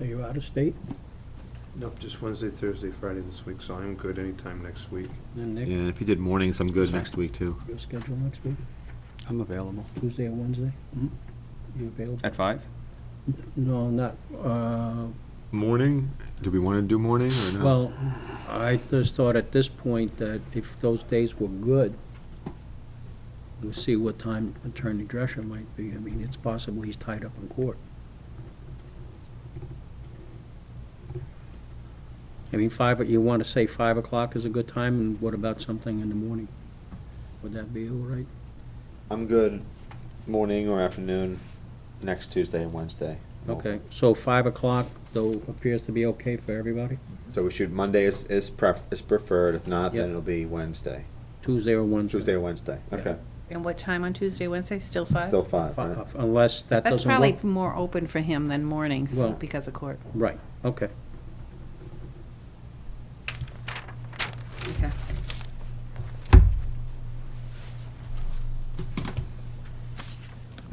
Are you out of state? Nope, just Wednesday, Thursday, Friday this week, so I'm good anytime next week. Then Yeah, Nick, and if you did mornings, I'm good next week, too. your schedule next week, I'm available. Tuesday or Wednesday? Mhm. You available? At five? No, not, uh, Morning? Do we want to do morning or not? well, I just thought at this point that if those days were good, we'll see what time Attorney Drescher might be. I mean, it's possible he's tied up in court. I mean, five, you want to say five o'clock is a good time, and what about something in the morning? Would that be all right? I'm good morning or afternoon next Tuesday and Wednesday. Okay, so 5 o'clock, though, appears to be okay for everybody? So we should, Monday is, is pref, is preferred, if not, Yeah. then it'll be Wednesday, Tuesday or Wednesday? Tuesday or Wednesday, okay. And what time on Tuesday, Wednesday? Still five? Still five, Fi- right? Unless that That's doesn't work. probably more open for him than mornings Well- because of court. Right, okay. Okay.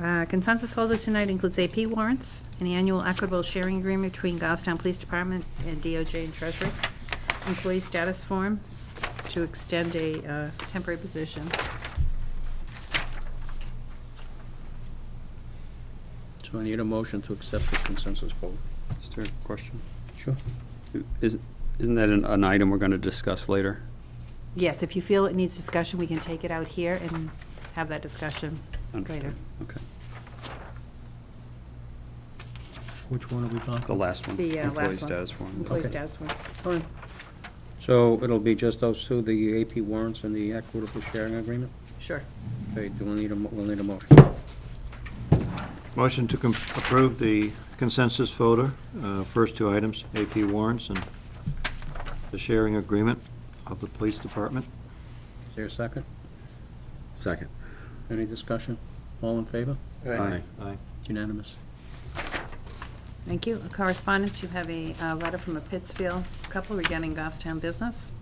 Uh, Consensus folder tonight includes AP warrants, an annual equitable sharing agreement between Goffstown Police Department and DOJ and Treasury, employee status form to extend a uh, temporary position. So I need a motion to accept the consensus vote. Is there a question? Sure. Is- Isn't that an- an item we're going to discuss later? Yes, if you feel it needs discussion, we can take it out here and have that discussion later. Understood. Okay, Which one are we talking? the last one. The uh, last one. Employee status form. Employee Okay. status form. Fine. So it'll be just those two, the AP warrants and the equitable sharing agreement? Sure. Okay, do we need a, mo- we'll need a motion? Motion to com- approve the consensus folder, uh, first two items, AP warrants and the sharing agreement of the police department. Is there a second? Second. Any discussion? All in favor? Aye. Aye. It's Unanimous. Thank you. Correspondence, you have a uh, letter from a Pittsfield couple regarding Goffstown business,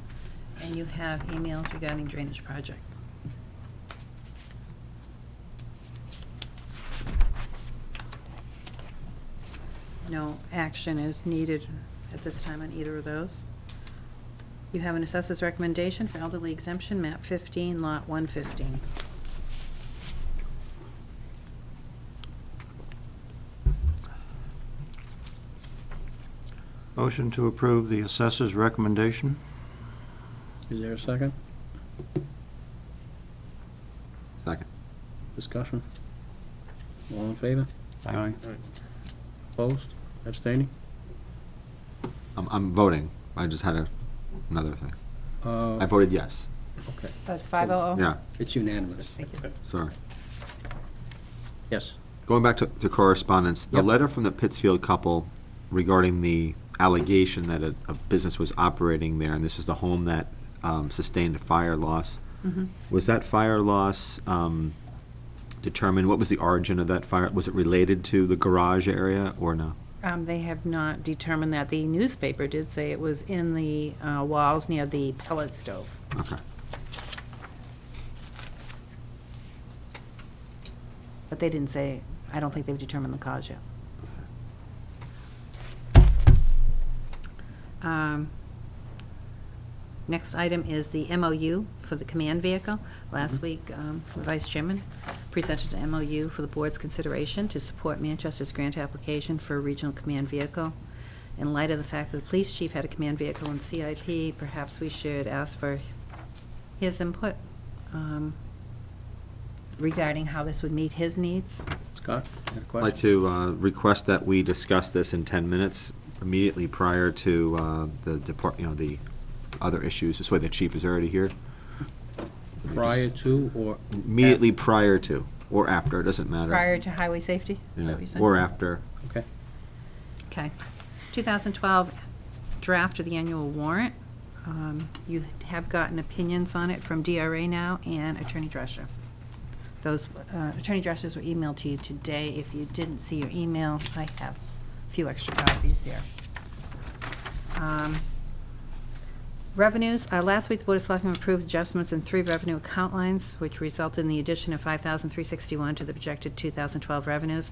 and you have emails regarding drainage project. No action is needed at this time on either of those. You have an assessor's recommendation for elderly exemption, map 15, lot 115. Motion to approve the assessor's recommendation. Is there a second? Second. Discussion? All in favor? Aye. Opposed? Abstaining? I'm, I'm voting. I just had a- another thing. Uh, I voted yes. Okay, That's 500? Yeah, it's unanimous. sorry. Yes. Going back to, to correspondence, the Yep. letter from the Pittsfield couple regarding the allegation that a, a business was operating there, and this was the home that um, sustained a fire loss. Was that fire loss um, determined? What was the origin of that fire? Was it related to the garage area or no? Um, they have not determined that. The newspaper did say it was in the uh, walls near the pellet stove. Okay. But they didn't say, I don't think they've determined the cause yet. Um, Next item is the MOU for the command vehicle. Last Mm-hmm. week, um, the Vice Chairman presented an MOU for the board's consideration to support Manchester's grant application for a regional command vehicle. In light of the fact that the police chief had a command vehicle in CIP, perhaps we should ask for his input um, regarding how this would meet his needs. Scott, you got a I'd question? like to uh, request that we discuss this in 10 minutes immediately prior to uh, the depart, you know, the other issues. This way the chief is already here. Prior to or? Immediately prior to, or after, it doesn't matter. Prior to highway safety, is that Yeah, what you said? Or after. Okay. Okay. 2012 draft of the annual warrant. Um, You have gotten opinions on it from DRA now and Attorney Drescher. Those, uh, Attorney Dreschers were emailed to you today. If you didn't see your email, I have a few extra copies here. Um, Revenues, uh, last week, the Board of Selectmen approved adjustments in three revenue account lines, which resulted in the addition of 5361 to the projected 2012 revenues.